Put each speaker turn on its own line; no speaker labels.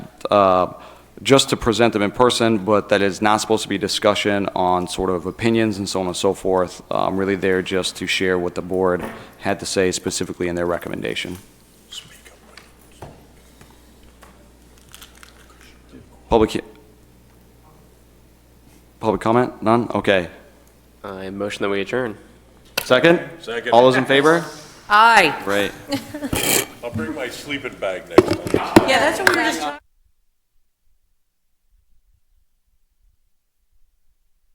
uh, just to present them in person, but that is not supposed to be discussion on sort of opinions and so on and so forth. I'm really there just to share what the board had to say specifically in their recommendation. Public, he- public comment? None? Okay.
I motion that we adjourn.
Second?
Second.
All those in favor?
Aye.
Great.
I'll bring my sleeping bag next time.
Yeah, that's what we were just talking